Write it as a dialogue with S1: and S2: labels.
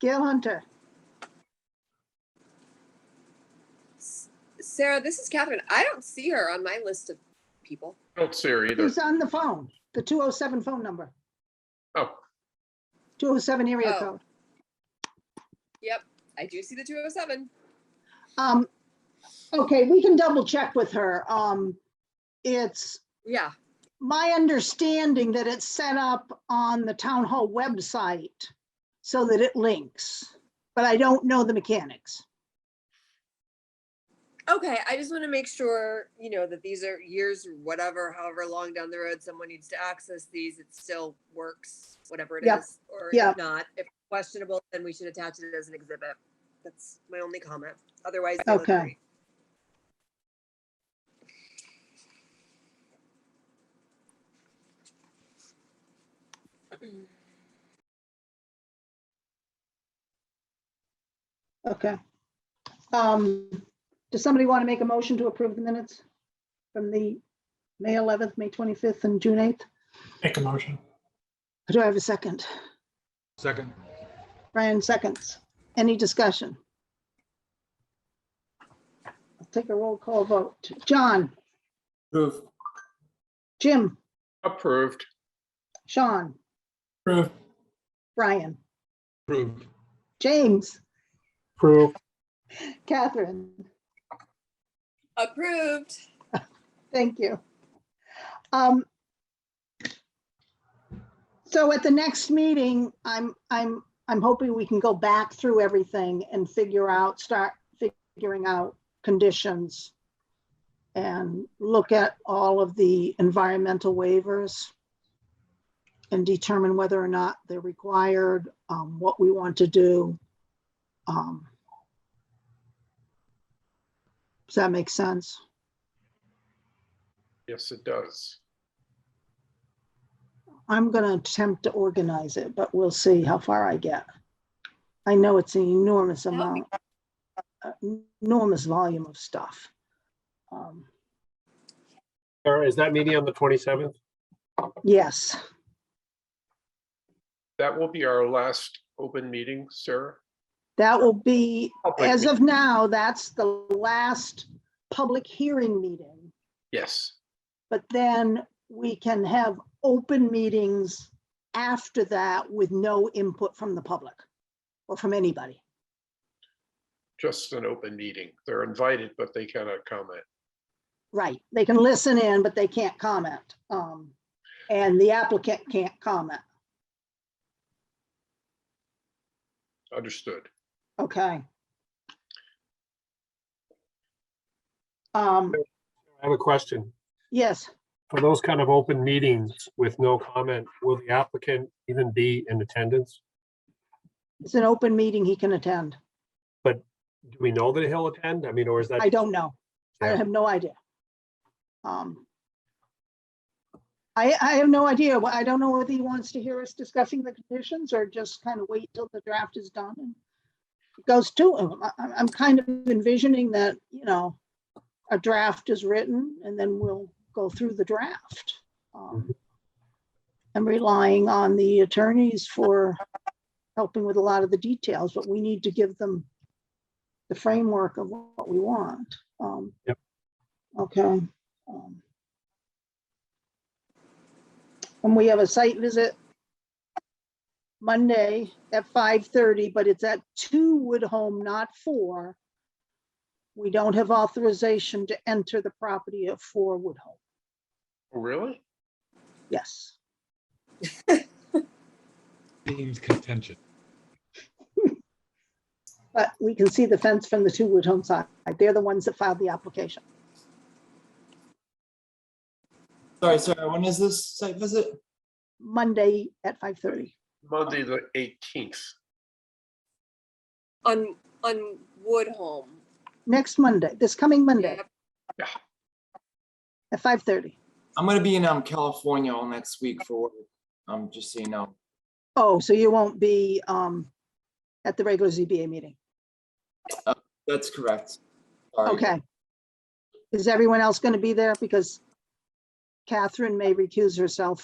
S1: Gail Hunter,
S2: Sarah, this is Catherine. I don't see her on my list of people.
S3: Don't see her either.
S1: who's on the phone, the 207 phone number,
S3: Oh,
S1: 207 area
S2: Oh.
S1: code.
S2: Yep, I do see the 207.
S1: Um, okay, we can double check with her. Um, it's
S2: Yeah,
S1: my understanding that it's set up on the town hall website so that it links, but I don't know the mechanics.
S2: okay. I just want to make sure, you know, that these are years, or whatever, however long down the road someone needs to access these, it still works, whatever it
S1: Yep.
S2: is. Or
S1: Yep.
S2: if not, if questionable, then we should attach it as an exhibit. That's my only comment. Otherwise, they look
S1: Okay.
S2: great.
S1: Okay. Um, does somebody want to make a motion to approve the minutes from the May 11th, May 25th and June 8th?
S4: Make a motion.
S1: Do I have a second?
S5: Second.
S1: Brian seconds. Any discussion? I'll take a roll call vote. John,
S5: Move.
S1: Jim,
S3: approved.
S1: Sean,
S4: Approve.
S1: Brian,
S5: Approved.
S1: James,
S4: Approve.
S1: Catherine.
S2: Approved.
S1: Thank you. Um, So at the next meeting, I'm, I'm, I'm hoping we can go back through everything and figure out, start figuring out conditions and look at all of the environmental waivers and determine whether or not they're required, um, what we want to do. Um, Does that make sense?
S3: Yes, it does.
S1: I'm gonna attempt to organize it, but we'll see how far I get. I know it's an enormous
S2: me.
S1: amount, uh, enormous volume of stuff. Um,
S4: Sarah, is that meeting on the 27th?
S1: Yes,
S3: That will be our last open meeting, Sarah.
S1: that will be,
S3: Public
S1: as of now, that's the last public hearing meeting.
S3: Yes,
S1: But then we can have open meetings after that with no input from the public or from anybody.
S3: just an open meeting. They're invited, but they cannot comment.
S1: Right, they can listen in, but they can't comment. Um, and the applicant can't comment.
S3: Understood.
S1: Okay. Um,
S4: I have a question.
S1: yes,
S4: For those kind of open meetings with no comment, will the applicant even be in attendance?
S1: it's an open meeting he can attend.
S4: Do we know that he'll attend? I mean, or is that?
S1: I don't know. I
S4: Yeah.
S1: have no idea. Um. I, I have no idea. Well, I don't know whether he wants to hear us discussing the conditions or just kind of wait till the draft is done and goes to him. I, I'm- I'm kind of envisioning that, you know, a draft is written and then we'll go through the draft. Um, I'm relying on the attorneys for helping with a lot of the details, but we need to give them the framework of what we want. Um,
S4: Yep.
S1: Okay. um, And we have a site visit Monday at five thirty, but it's at two Wood Home, not four. We don't have authorization to enter the property of four Wood Home.
S3: Really?
S1: Yes.
S5: Deemed contention.
S1: But we can see the fence from the two Wood Home side. They're the ones that filed the application.
S6: Sorry, Sarah, when is this site visit?
S1: Monday at five thirty.
S3: Monday, the 18th.
S2: On, on Woodholm.
S1: Next Monday, this coming Monday
S2: Yep.
S1: at five thirty.
S6: I'm gonna be in, um, California all next week for, work. um, just so you know.
S1: Oh, so you won't be um at the regular ZBA meeting?
S6: That's correct. Sorry.
S1: Okay. Is everyone else going to be there? Because Catherine may recuse herself